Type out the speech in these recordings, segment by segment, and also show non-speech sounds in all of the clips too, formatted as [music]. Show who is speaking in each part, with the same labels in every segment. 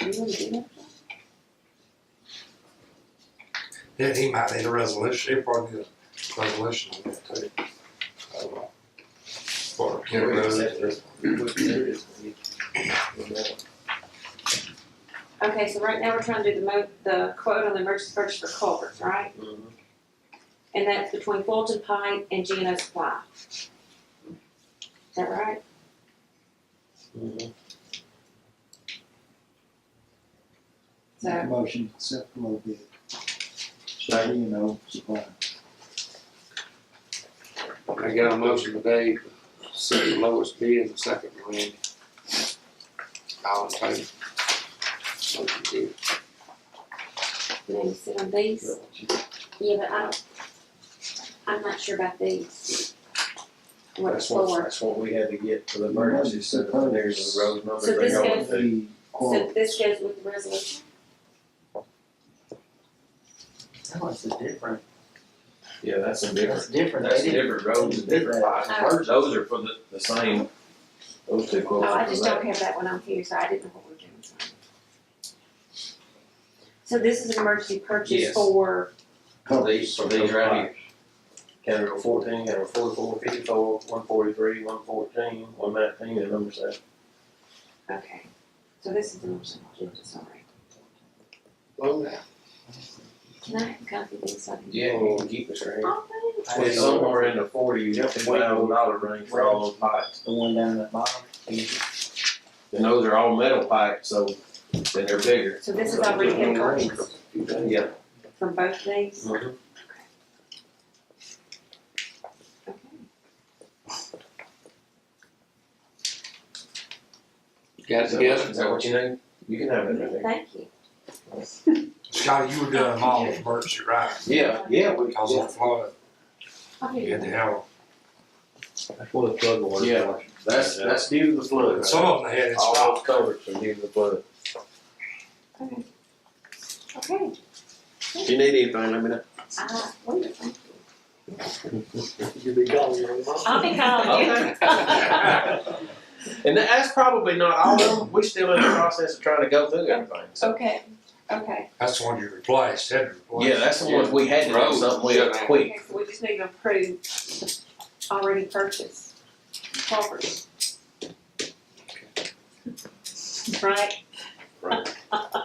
Speaker 1: want to do that?
Speaker 2: Yeah, he might need a resolution, he'll probably need a resolution on that too. I don't know. Or, you know,
Speaker 1: Okay, so right now we're trying to do the mo, the quote on the emergency purchase for culverts, right? And that's between Fulton Pike and Gino Supply. Is that right?
Speaker 3: Make a
Speaker 1: So,
Speaker 3: motion to accept the low bid. Second. You know, supply.
Speaker 4: I got a motion today, second lowest bid and second to Randy. All in favor? Motion carried.
Speaker 1: we need to sit on these. Yeah, but I don't, I'm not sure about these. What it's
Speaker 5: That's what,
Speaker 1: for.
Speaker 5: that's what we had to get for the emergency, so that there's a road number.
Speaker 1: So
Speaker 5: they
Speaker 1: this
Speaker 5: go
Speaker 1: goes-
Speaker 5: through.
Speaker 3: The
Speaker 1: So
Speaker 3: quote,
Speaker 1: this goes with the resolution?
Speaker 6: That is different,
Speaker 5: Yeah, that's a different,
Speaker 6: that's different,
Speaker 5: that's
Speaker 6: they
Speaker 5: a
Speaker 6: didn't,
Speaker 5: different road, and different lots.
Speaker 1: Oh.
Speaker 5: Those are for the, the same, those two
Speaker 1: Oh,
Speaker 5: quotes
Speaker 1: I
Speaker 5: are for
Speaker 1: just
Speaker 5: that.
Speaker 1: don't have that one on here, so I didn't know what we're doing. So this is an emergency purchase
Speaker 5: Yes.
Speaker 1: for,
Speaker 5: For These, for these right here. Category fourteen, category 44, 54, one forty-three, one fourteen, one nineteen, the number seven.
Speaker 1: okay, so this is an emergency purchase, sorry.
Speaker 4: Slow down.
Speaker 1: Can I have a copy of this? so I can-
Speaker 5: Yeah, and you can keep this right here.
Speaker 1: Oh, thanks.
Speaker 6: I
Speaker 5: It's
Speaker 6: know.
Speaker 5: somewhere in the forty, thousand dollar range for all those pipes.
Speaker 6: the one down at bottom.
Speaker 5: And those are all metal pipes, so, and they're bigger.
Speaker 1: So this is already in purchase
Speaker 4: You done?
Speaker 5: Yeah.
Speaker 1: from both these? Okay.
Speaker 4: Got it together?
Speaker 5: Is that what you need? You can have it right there.
Speaker 1: Thank you.
Speaker 2: Scotty, you were doing them all with Berkshire, right?
Speaker 5: Yeah, yeah, we,
Speaker 2: Cause of Florida,
Speaker 1: I'll do
Speaker 2: you had to
Speaker 1: that.
Speaker 2: have,
Speaker 7: That's what the flood water.
Speaker 5: Yeah. that's, that's due to the flood.
Speaker 2: some of them had it
Speaker 5: All
Speaker 2: stopped.
Speaker 5: those covers are due to the flood.
Speaker 1: Okay,
Speaker 5: If you need anything, let me know.
Speaker 1: uh, wonderful, thank you.
Speaker 6: You be gone, young man.
Speaker 1: I'll be calling you.
Speaker 5: [laughs] And that- that's probably not all of them, we still in the process of trying to go through everything, so.
Speaker 1: Okay, okay.
Speaker 2: That's the one you replaced, had to replace.
Speaker 5: Yeah, that's the ones we had to do something with quick.
Speaker 1: Okay, so we just need to approve already purchased culverts. Right?
Speaker 4: All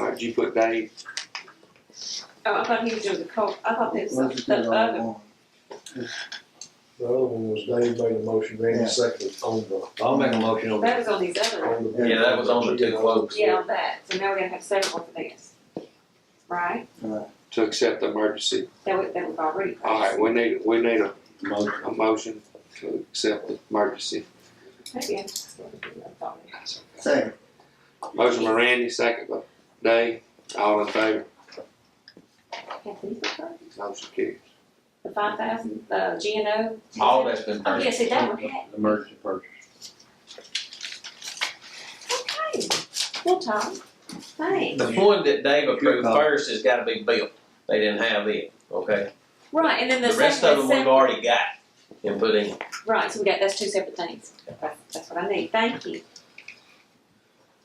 Speaker 4: right, you put Dave,
Speaker 1: Oh, I thought he was doing the cul, I thought this
Speaker 3: let's
Speaker 1: was
Speaker 3: just
Speaker 1: the
Speaker 3: get all
Speaker 1: other.
Speaker 3: one.
Speaker 7: The other one was Dave made a motion, Randy
Speaker 3: Yeah.
Speaker 7: seconded on the,
Speaker 6: I'll make a motion on
Speaker 1: That was on these other,
Speaker 7: on the.
Speaker 5: Yeah, that was on the two quotes.
Speaker 1: yeah, on that, so now we're gonna have several for this. Right?
Speaker 3: Right.
Speaker 4: to accept the emergency.
Speaker 1: That we, that we've already
Speaker 4: All right,
Speaker 1: purchased.
Speaker 4: we need, we need a,
Speaker 7: Motion.
Speaker 4: a motion to accept the emergency.
Speaker 1: Maybe I just wanted to do that, thought it.
Speaker 3: Second,
Speaker 4: Motion by Randy, second by Dave, all in favor?
Speaker 1: Have these been purchased?
Speaker 4: Motion carried.
Speaker 1: The five thousand, uh, G and O?
Speaker 5: All that's been
Speaker 1: Oh, yeah,
Speaker 5: purchased.
Speaker 1: see, that one had,
Speaker 7: Emergency purchase.
Speaker 1: okay, well, Tom, thanks.
Speaker 5: The one that Dave approved first has gotta be built, they didn't have it, okay?
Speaker 1: Right, and then the
Speaker 5: The rest
Speaker 1: second
Speaker 5: of
Speaker 1: is
Speaker 5: them we've
Speaker 1: separate,
Speaker 5: already got and put in.
Speaker 1: right, so we got, that's two separate things, that's, that's what I need, thank you.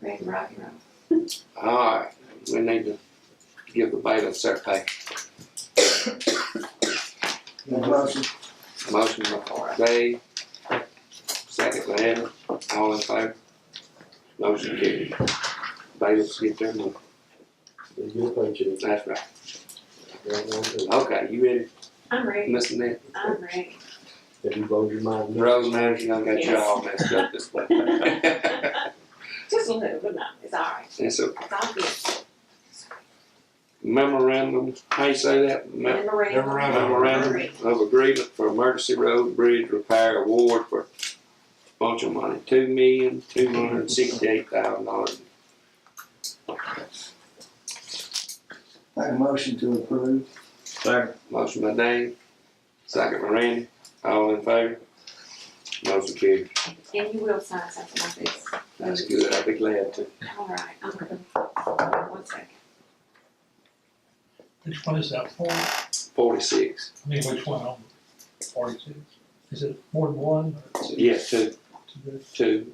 Speaker 1: Ready, to rock and roll.
Speaker 4: All right, we need to give the bailiff their pay.
Speaker 3: the motion,
Speaker 4: Motion by Dave, second by Evan, all in favor? Motion carried. Bailiffs get their money,
Speaker 7: They get a paycheck.
Speaker 4: that's right.
Speaker 7: That one, and
Speaker 4: Okay, you ready,
Speaker 1: I'm ready,
Speaker 4: Mr. Nick?
Speaker 1: I'm ready.
Speaker 5: [laughs]
Speaker 1: [laughs]
Speaker 7: If you vote your mind,
Speaker 4: The road manager, I got you all messed up this way. [laughs]
Speaker 1: Just a little, but no, it's alright,
Speaker 4: It's a
Speaker 1: it's all good,
Speaker 4: memorandum, how you say that? Me-
Speaker 1: memorandum.
Speaker 2: Memorandum.
Speaker 4: Memorandum of agreement for emergency road bridge repair award for bunch of money, two million, two hundred and sixty-eight thousand dollars.
Speaker 3: make a motion to approve.
Speaker 4: Motion by Dave, second by Randy, all in favor? Motion carried.
Speaker 1: And you will sign something like this,
Speaker 4: That's good, I'd be glad to.
Speaker 1: alright, I'm gonna, one second.
Speaker 8: Which one is that for? I
Speaker 4: Forty-six,
Speaker 8: mean, which one, um, forty-two? Is it more than one or
Speaker 4: yes, two,
Speaker 8: two?
Speaker 4: two.